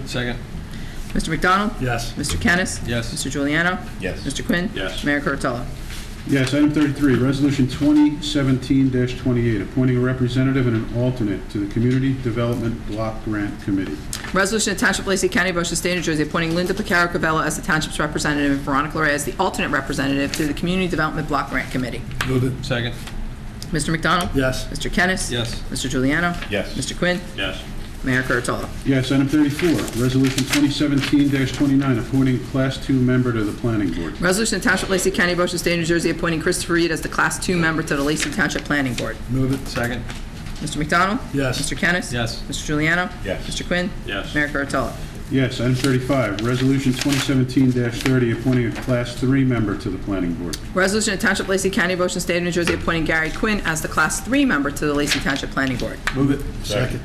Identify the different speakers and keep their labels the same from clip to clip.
Speaker 1: Second.
Speaker 2: Mr. McDonald?
Speaker 3: Yes.
Speaker 2: Mr. Kennis?
Speaker 1: Yes.
Speaker 2: Mr. Juliano?
Speaker 4: Yes.
Speaker 2: Mr. Quinn?
Speaker 3: Yes.
Speaker 2: Mayor Kurtolo?
Speaker 5: Yes, item 33, Resolution 2017-28, appointing a representative and an alternate to the Community Development Block Grant Committee.
Speaker 2: Resolution to Township of Lacey County, Ocean State, New Jersey, appointing Linda Picaro Cavella as the Township's representative and Veronica Larray as the alternate representative to the Community Development Block Grant Committee.
Speaker 3: Move it.
Speaker 1: Second.
Speaker 2: Mr. McDonald?
Speaker 3: Yes.
Speaker 2: Mr. Kennis?
Speaker 1: Yes.
Speaker 2: Mr. Juliano?
Speaker 4: Yes.
Speaker 2: Mr. Quinn?
Speaker 3: Yes.
Speaker 2: Mayor Kurtolo?
Speaker 5: Yes, item 34, Resolution 2017-29, appointing Class II member to the Planning Board.
Speaker 2: Resolution to Township of Lacey County, Ocean State, New Jersey, appointing Christopher Reed as the Class Two member to the Lacey Township Planning Board.
Speaker 3: Move it.
Speaker 1: Second.
Speaker 2: Mr. McDonald?
Speaker 3: Yes.
Speaker 2: Mr. Kennis?
Speaker 1: Yes.
Speaker 2: Mr. Juliano?
Speaker 4: Yes.
Speaker 2: Mr. Quinn?
Speaker 3: Yes.
Speaker 2: Mayor Kurtolo?
Speaker 5: Yes, item 35, Resolution 2017-30, appointing a Class III member to the Planning Board.
Speaker 2: Resolution to Township of Lacey County, Ocean State, New Jersey, appointing Gary Quinn as the Class 3 member to the Lacey Township Planning Board.
Speaker 3: Move it.
Speaker 4: Second.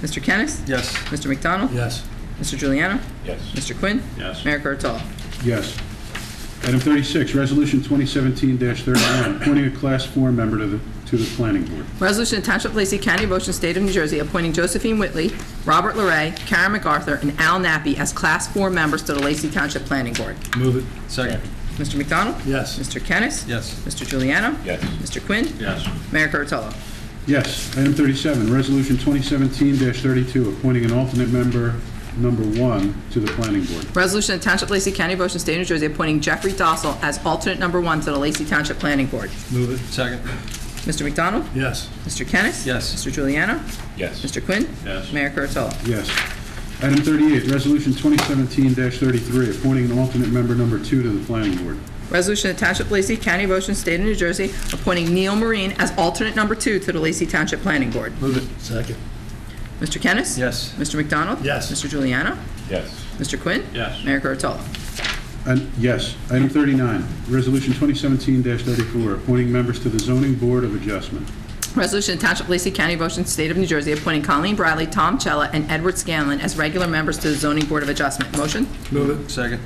Speaker 2: Mr. Kennis?
Speaker 1: Yes.
Speaker 2: Mr. McDonald?
Speaker 3: Yes.
Speaker 2: Mr. Juliano?
Speaker 4: Yes.
Speaker 2: Mr. Quinn?
Speaker 3: Yes.
Speaker 2: Mayor Kurtolo?
Speaker 5: Yes. Item 36, Resolution 2017-31, appointing a Class IV member to the, to the Planning Board.
Speaker 2: Resolution to Township of Lacey County, Ocean State of New Jersey, appointing Josephine Whitley, Robert Larray, Karen MacArthur, and Al Nappi as Class 4 members to the Lacey Township Planning Board.
Speaker 3: Move it.
Speaker 1: Second.
Speaker 2: Mr. McDonald?
Speaker 3: Yes.
Speaker 2: Mr. Kennis?
Speaker 1: Yes.
Speaker 2: Mr. Juliano?
Speaker 4: Yes.
Speaker 2: Mr. Quinn?
Speaker 3: Yes.
Speaker 2: Mayor Kurtolo?
Speaker 5: Yes. Item 37, Resolution 2017-32, appointing an alternate member, number one, to the Planning Board.
Speaker 2: Resolution to Township of Lacey County, Ocean State, New Jersey, appointing Jeffrey Dossel as alternate number 1 to the Lacey Township Planning Board.
Speaker 3: Move it.
Speaker 1: Second.
Speaker 2: Mr. McDonald?
Speaker 3: Yes.
Speaker 2: Mr. Kennis?
Speaker 1: Yes.
Speaker 2: Mr. Juliano?
Speaker 4: Yes.
Speaker 2: Mr. Quinn?
Speaker 3: Yes.
Speaker 2: Mayor Kurtolo?
Speaker 5: Yes. Item 38, Resolution 2017-33, appointing an alternate member, number two, to the Planning Board.
Speaker 2: Resolution of Township of Lacey, County of Ocean, State of New Jersey, appointing Neil Marine as alternate number two to the Lacey Township Planning Board.
Speaker 3: Move it. Second.
Speaker 2: Mr. Kennis?
Speaker 1: Yes.
Speaker 2: Mr. McDonald?
Speaker 3: Yes.
Speaker 2: Mr. Juliano?
Speaker 4: Yes.
Speaker 2: Mr. Quinn?
Speaker 3: Yes.
Speaker 2: Mayor Kurtolo?
Speaker 5: And, yes. Item 39, Resolution 2017-34, appointing members to the Zoning Board of Adjustment.
Speaker 2: Resolution of Township of Lacey, County of Ocean, State of New Jersey, appointing Colleen Bradley, Tom Chella, and Edward Scanlon as regular members to the Zoning Board of Adjustment. Motion?
Speaker 3: Move it.
Speaker 1: Second.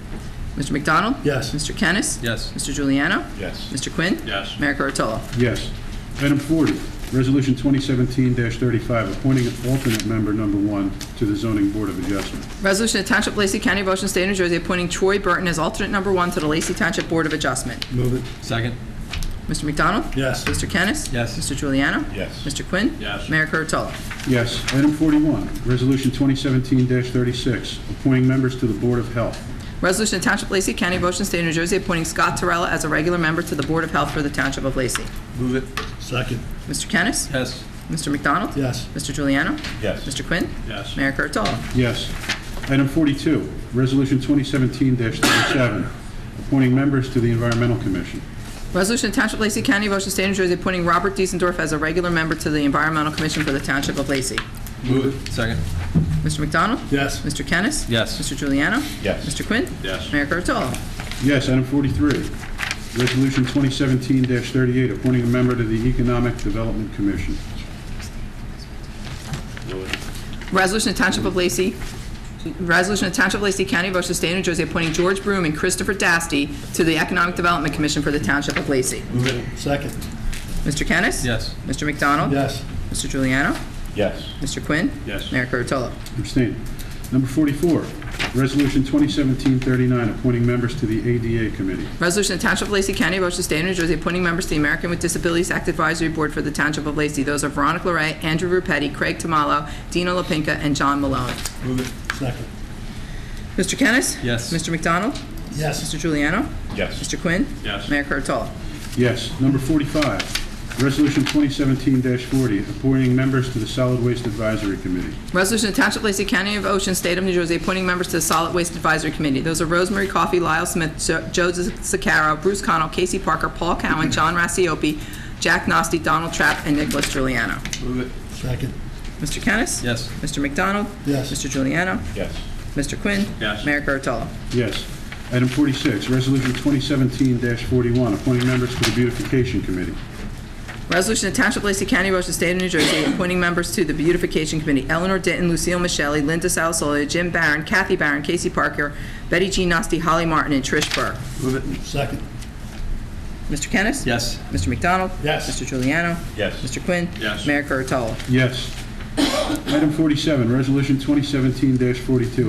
Speaker 2: Mr. McDonald?
Speaker 3: Yes.
Speaker 2: Mr. Kennis?
Speaker 1: Yes.
Speaker 2: Mr. Juliano?
Speaker 4: Yes.
Speaker 2: Mr. Quinn?
Speaker 3: Yes.
Speaker 2: Mayor Kurtolo?
Speaker 5: Yes. Item 40, Resolution 2017-35, appointing an alternate member, number one, to the Zoning Board of Adjustment.
Speaker 2: Resolution of Township of Lacey County, of Ocean State, of New Jersey, appointing Troy Burton as alternate number one to the Lacey Township Board of Adjustment.
Speaker 3: Move it.
Speaker 1: Second.
Speaker 2: Mr. McDonald?
Speaker 3: Yes.
Speaker 2: Mr. Kennis?
Speaker 1: Yes.
Speaker 2: Mr. Juliano?
Speaker 4: Yes.
Speaker 2: Mr. Quinn?
Speaker 3: Yes.
Speaker 2: Mayor Kurtolo?
Speaker 5: Yes. Item 41, Resolution 2017-36, appointing members to the Board of Health.
Speaker 2: Resolution of Township of Lacey County, of Ocean State, of New Jersey, appointing Scott Terrella as a regular member to the Board of Health for the Township of Lacey.
Speaker 1: Move it.
Speaker 3: Second.
Speaker 2: Mr. Kennis?
Speaker 1: Yes.
Speaker 2: Mr. McDonald?
Speaker 3: Yes.
Speaker 2: Mr. Juliano?
Speaker 4: Yes.
Speaker 2: Mr. Quinn?
Speaker 3: Yes.
Speaker 2: Mayor Kurtolo?
Speaker 5: Yes. Item 42, Resolution 2017-37, appointing members to the Environmental Commission.
Speaker 2: Resolution of Township of Lacey County, of Ocean State, of New Jersey, appointing Robert Diesendorf as a regular member to the Environmental Commission for the Township of Lacey.
Speaker 1: Move it. Second.
Speaker 2: Mr. McDonald?
Speaker 3: Yes.
Speaker 2: Mr. Kennis?
Speaker 1: Yes.
Speaker 2: Mr. Juliano?
Speaker 4: Yes.
Speaker 2: Mr. Quinn?
Speaker 3: Yes.
Speaker 2: Mayor Kurtolo?
Speaker 5: Yes. Item 43, Resolution 2017-38, appointing a member to the Economic Development Commission.
Speaker 3: Move it.
Speaker 2: Resolution of Township of Lacey, Resolution of Township of Lacey County, Ocean State, New Jersey, appointing George Broom and Christopher Dasty to the Economic Development Commission for the Township of Lacey.
Speaker 3: Move it. Second.
Speaker 2: Mr. Kennis?
Speaker 1: Yes.
Speaker 2: Mr. McDonald?
Speaker 3: Yes.
Speaker 2: Mr. Juliano?
Speaker 4: Yes.
Speaker 2: Mr. Quinn?
Speaker 3: Yes.
Speaker 2: Mayor Kurtolo?
Speaker 5: Abstain. Number 44, Resolution 2017-39, appointing members to the ADA Committee.
Speaker 2: Resolution of Township of Lacey County, Ocean State, New Jersey, appointing members to the American with Disabilities Act Advisory Board for the Township of Lacey. Those are Veronica Larray, Andrew Rupetti, Craig Tamalo, Dino Lapinka, and John Malone.
Speaker 3: Move it. Second.
Speaker 2: Mr. Kennis?
Speaker 1: Yes.
Speaker 2: Mr. McDonald?
Speaker 3: Yes.
Speaker 2: Mr. Juliano?
Speaker 4: Yes.
Speaker 2: Mr. Quinn?
Speaker 3: Yes.
Speaker 2: Mayor Kurtolo?
Speaker 5: Yes. Number 45, Resolution 2017-40, appointing members to the Solid Waste Advisory Committee.
Speaker 2: Resolution to Township of Lacey County of Ocean, State of New Jersey, appointing members to the Solid Waste Advisory Committee. Those are Rosemary Coffey, Lyle Smith, Jo- Joseph Sacaro, Bruce Connell, Casey Parker, Paul Cowan, John Rassiopi, Jack Nasty, Donald Trapp, and Nicholas Giuliano.
Speaker 1: Move it.
Speaker 3: Second.
Speaker 2: Mr. Kennis?
Speaker 1: Yes.
Speaker 2: Mr. McDonald?
Speaker 3: Yes.
Speaker 2: Mr. Giuliano.
Speaker 4: Yes.
Speaker 2: Mr. Quinn?
Speaker 3: Yes.
Speaker 2: Mayor Kurtolo?
Speaker 5: Yes. Item 46, Resolution 2017-41, appointing members to the Beautification Committee.
Speaker 2: Resolution to Township of Lacey County, Ocean State of New Jersey, appointing members to the Beautification Committee. Eleanor Denton, Lucille Michelli, Linda Salisola, Jim Barron, Kathy Barron, Casey Parker, Betty G. Nasty, Holly Martin, and Trish Burke.
Speaker 1: Move it.
Speaker 3: Second.
Speaker 2: Mr. Kennis?
Speaker 1: Yes.
Speaker 2: Mr. McDonald?
Speaker 3: Yes.
Speaker 2: Mr. Juliano?
Speaker 4: Yes.
Speaker 2: Mr. Quinn?
Speaker 3: Yes.
Speaker 2: Mayor Kurtolo?
Speaker 5: Yes. Item 47, Resolution 2017-42,